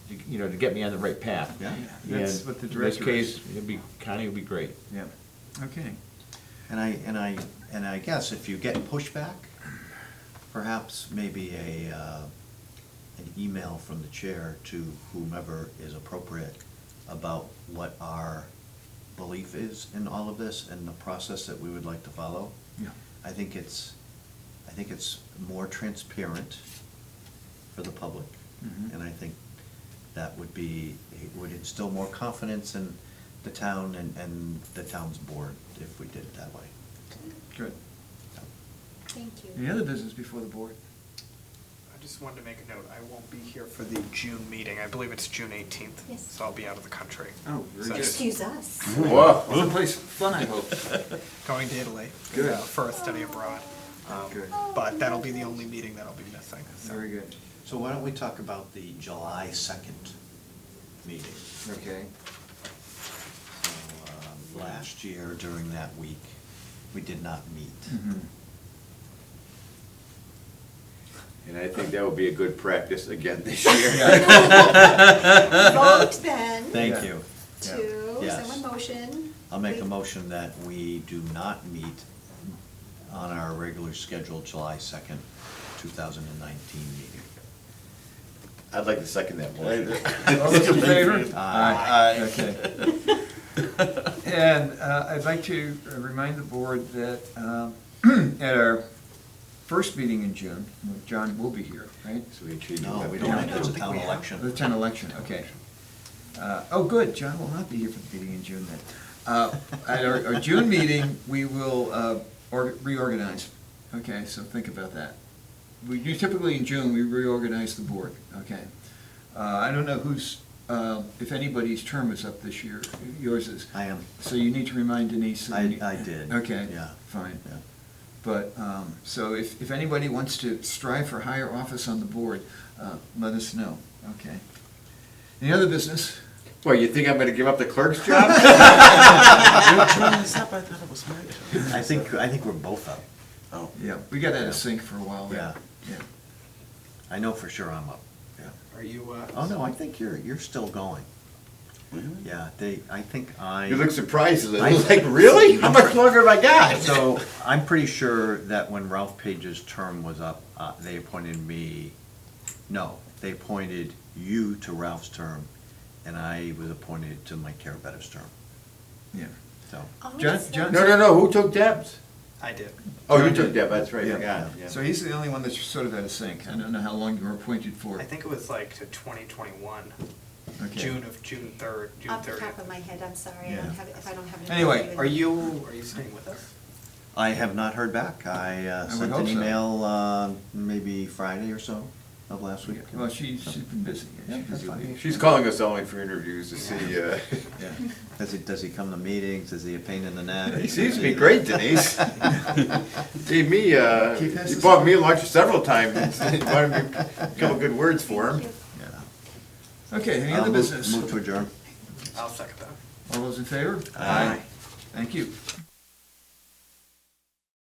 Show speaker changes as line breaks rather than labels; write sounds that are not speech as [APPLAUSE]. to, you know, to get me on the right path.
Yeah,
And
that's what the director is.
In this case, it'd be, Connie would be great.
Yeah, okay.
And I, and I, and I guess if you get pushback, perhaps maybe a, uh, an email from the chair to whomever is appropriate about what our belief is in all of this and the process that we would like to follow.
Yeah.
I think it's, I think it's more transparent for the public.
Mhm.
And I think that would be, it would instill more confidence in the town and, and the town's board if we did it that way.
Good.
Thank you.
Any other business before the board?
I just wanted to make a note, I won't be here for the June meeting, I believe it's June eighteenth,
Yes.
so I'll be out of the country.
Oh, very
So
good.
just
Excuse us.
Someplace fun, I hope.
Going to Italy.
Good.
uh, For a study abroad. Um,
Good.
But that'll be the only meeting that I'll be missing, so.
Very good.
So why don't we talk about the July second meeting?
Okay.
So, um, Last year during that week, we did not meet.
Mhm.
And I think that would be a good practice again this
[LAUGHS]
year.
Vote then
Thank
Yeah.
you.
to,
Yes.
someone motion.
I'll make a
We-
motion that we do not meet on our regular scheduled July second, two thousand and nineteen meeting.
I'd like to second that [LAUGHS] motion.
All those in favor?
Aye.
Okay. And uh, I'd like to remind the board that um, [CLEARS THROAT] at our first meeting in June, when John will be here, right?
So we treat it
No, we
like-
don't,
Yeah.
it's a town
The
election.
town election, okay. Uh, Oh, good, John will not be here for the meeting in June then. Uh, At our our June meeting, we will uh, or- reorganize. Okay, so think about that. We do typically in June, we reorganize the board, okay? Uh, I don't know who's, uh, if anybody's term is up this year, yours is.
I am,
So you need to remind Denise.
I,
and-
I did.
Okay,
Yeah.
fine.
Yeah.
But, um, so if, if anybody wants to strive for higher office on the board, uh, let us know, okay? Any other business?
Well, you think I'm gonna give up the clerk's
[LAUGHS]
job?
I think, I think we're both up.
Yeah, we got out of sync for a while there. Yeah.
I know for sure I'm up.
Are you, uh?
Oh, no, I think you're, you're still going. Yeah, they, I think I.
You look surprised, Lou.
I-
like, really? How much longer have I got?
So I'm pretty sure that when Ralph Page's term was up, uh, they appointed me, no, they appointed you to Ralph's term, and I was appointed to Mike Carabetta's term.
Yeah.
So,
I'll
John-
just-
John-
No, no, no, who took Deb's?
I did.
Oh, you took Deb, that's right, I
Yeah.
forgot, yeah.
So he's the only one that's sort of out of sync. I don't know how long you were appointed for.
I think it was like to twenty twenty-one,
Okay.
June of, June third, June
Off the
thirtieth.
top of my head, I'm sorry, I
Yeah.
don't have, it- if I don't have it. in
Anyway,
front of me.
Are you, are you staying with us?
I have not heard back. I uh,
I would
sent
hope
an
so.
email, uh, maybe Friday or so of last week.
Well, she's, she's been busy.
Yeah,
She's
that's
busy.
fine.
She's calling us only for interviews to see, uh,
Yeah.
Does he, does he come to meetings? Is he a pain in the neck?
he seems to be great, Denise. Gee, me, uh,
Keep this
he
as-
bought me lunch several times, He bought me a couple good words for him.
Thank you.
Yeah.
Okay, any
I'll
other
move-
business?
Move to adjourn.
I'll second that.
All those in favor?
Aye.
Thank you.